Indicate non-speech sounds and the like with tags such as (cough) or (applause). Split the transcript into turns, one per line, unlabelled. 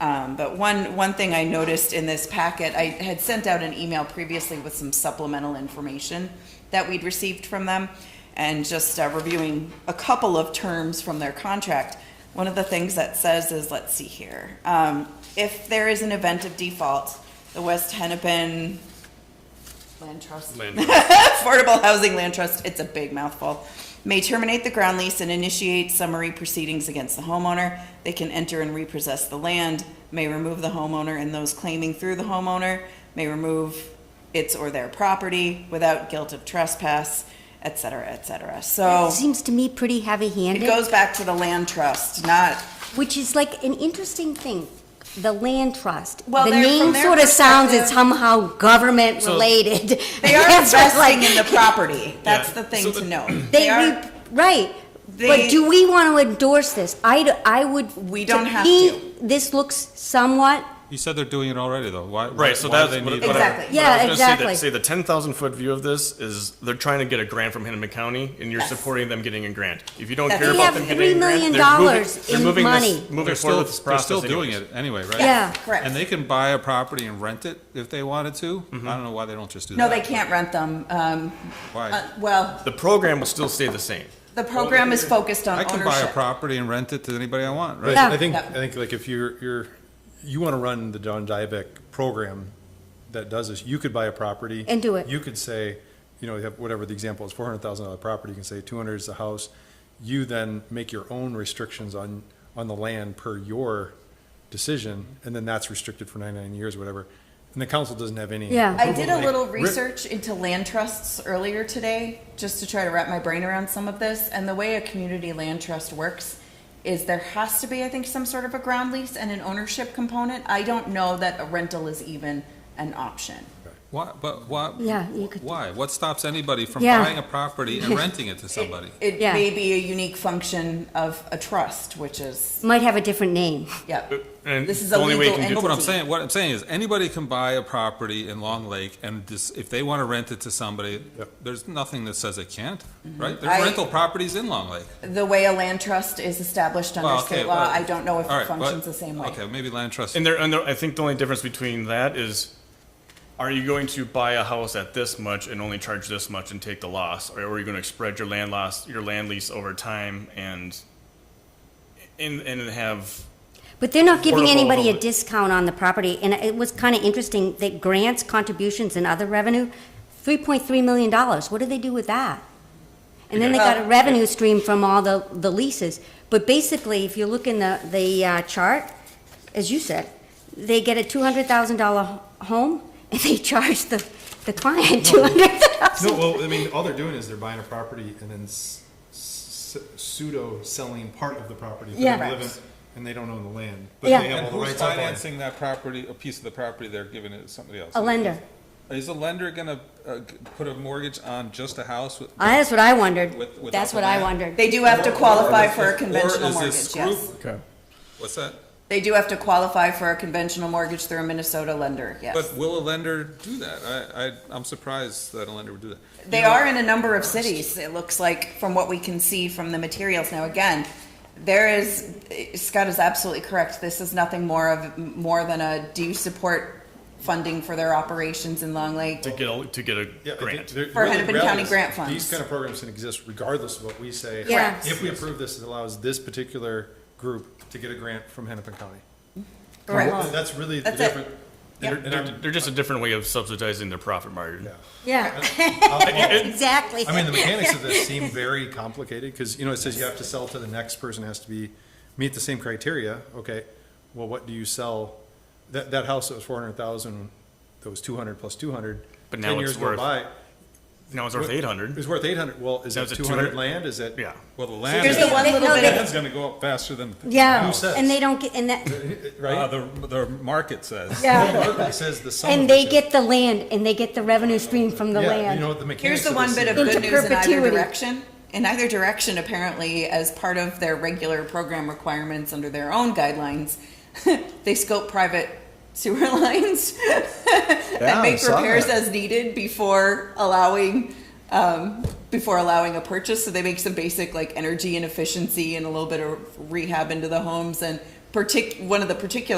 Um, but one, one thing I noticed in this packet, I had sent out an email previously with some supplemental information that we'd received from them. And just uh, reviewing a couple of terms from their contract, one of the things that says is, let's see here. Um, if there is an event of default, the West Hennepin Land Trust.
Land (laughs) trust.
Affordable Housing Land Trust, it's a big mouthful, may terminate the ground lease and initiate summary proceedings against the homeowner. They can enter and repossess the land, may remove the homeowner and those claiming through the homeowner, may remove its or their property without guilt of trespass, et cetera, et cetera. So
Seems to me pretty
Oh. it
heavy-handed,
goes back to the land trust, not,
which is like an interesting thing, the land trust.
Well,
The
they're- from
name
their
sort of sounds it's
perspective-
somehow
So-
government-related. (laughs)
they are
That's what,
investing
like,
in the property. That's the
Yeah. So
thing to
the-
know.
They,
are-
re- right,
They-
but do we want to endorse this? I, d- I would.
We don't have
me,
to.
This looks somewhat,
You said they're doing it already, though. Why? why-
Right, so
why
that's
do they
what,
need-
what I-
Exactly.
what
Yeah,
I was gonna say that-
exactly.
Say the ten thousand foot view of this is they're trying to get a grant from Hennepin County, and you're
Yes.
supporting them getting a grant. If you don't
That's
care
it. We
about
have
them
$3
getting a grant,
million
they're moving-
dollars
they're
in
moving this-
money.
Moving
They're
forward
still,
with this
they're
process.
still doing
anyways.
it anyway, right?
Yeah.
Correct.
And they can buy a property and rent it if they wanted to. I don't know why they don't just do that.
No, they can't rent them. Um, uh,
Why?
well,
The program will still stay the same.
the program is focused on
I can buy a
ownership.
property and rent it to anybody I want, right?
Yeah.
I think, I
Yep.
think like if you're, you're, you wanna run the John Dybeck program that does this, you could buy a property.
And do it.
You could say, you know, you have whatever the example is, four hundred thousand dollar property, you can say two hundred is the house. You then make your own restrictions on, on the land per your decision, and then that's restricted for ninety-nine years, or whatever. And the council doesn't have any.
Yeah.
I did a
Like,
little
ri-
research into land trusts earlier today, just to try to wrap my brain around some of this. And the way a community land trust works is there has to be, I think, some sort of a ground lease and an ownership component. I don't know that a rental is even an option.
Why, but why?
Yeah, you could-
Why? What stops anybody from
Yeah.
buying a property
(laughs)
and renting it to somebody?
It
Yeah.
may be a unique function of a trust, which is,
might have a different name.
yeah.
Uh,
And
This is
the
a
only way you
legal
can do
No,
entity.
what I'm saying, what I'm saying is anybody can buy a property in Long Lake and just, if they want to rent it to somebody,
Yep.
there's nothing that says it can't, right?
Mm-hmm. I-
There's rental properties in Long Lake.
The way a land trust is established
Well,
under
okay,
state law,
well,
I don't know if
all
it
right, but-
functions the same way.
Okay, maybe land trust.
And there, and there, I think the only difference between that is, are you going to buy a house at this much and only charge this much and take the loss, or are you going to spread your land loss, your land lease over time and and and have
But they're not giving
Affordable
anybody a
home.
discount on the property, and it was kind of interesting that grants, contributions, and other revenue, three point three million dollars, what do they do with that? And then they got a
Yeah.
revenue stream from all the, the leases, but basically, if you look in the, the, uh, chart, as you said, they get a two hundred thousand dollar home, (laughs) and they charge the, the client two hundred
No,
thousand.
well, I mean, all they're doing is they're buying a property and then s- s- pseudo selling part of the property. that they
Yeah.
live in, And they don't own the land, but
Yeah.
they have
And
all the
who's
rights on land.
financing that property, a piece of the property they're giving it to somebody else?
A lender,
Is a lender gonna, uh, g- put a mortgage on just a house with?
Uh, that's what I wondered,
With- without
that's
the
what I
land.
wondered.
They do have to qualify
Or is
for a
this- or
conventional
is
mortgage,
this
yes.
group-
Okay.
What's that?
They do have to qualify for a conventional mortgage through a Minnesota lender,
But
yes.
will a lender do that? I, I, I'm surprised that a lender would do that.
They are in a number of cities, it looks like, from what we can see from the materials. Now, again, there is, Scott is absolutely correct, this is nothing more of, more than a, do you support funding for their operations in Long Lake?
to get a, to get a
Yeah, I think
grant?
they're-
For
really,
Hennepin
really,
County grant funds.
These kind of programs can exist regardless of what we say.
Yeah. Correct.
If we approve this, it allows this particular group to get a grant from Hennepin County.
Correct.
That's really the
That's it.
different.
Yep.
and
They're,
I'm-
they're just a different way of subsidizing their profit margin.
Yeah.
Yeah, (laughs) exactly.
I
(laughs)
mean, the mechanics of this seem very complicated, because, you know, it says you have to sell to the next person has to be, meet the same criteria, okay? Well, what do you sell? That, that house that was four hundred thousand, that was two hundred plus two hundred.
But now it's worth- Now it's worth eight
It
hundred.
was worth eight hundred, well, is
Now
that
it's a
two hundred
200
land, is that?
Yeah.
Well, the land
Here's
is,
the one
They-
little
no,
bit,
they-
land's gonna go up faster than,
Yeah,
Who says?
and they don't get, and that,
uh,
(laughs) Right?
the, the market says.
yeah.
It says the sum.
And they
of it.
get the land, and they get the revenue stream from the
Yeah, you know,
land.
the mechanics.
here's the
of
one
this
bit of
seem-
Into
good news in either
perpetuity.
direction. In either direction, apparently, as part of their regular program requirements under their own guidelines, (laughs) they scope private sewer (laughs) lines. and make repairs as needed before allowing um, before allowing a purchase. So they make some basic like energy and efficiency and a little bit of rehab into the homes and partic- one of the particular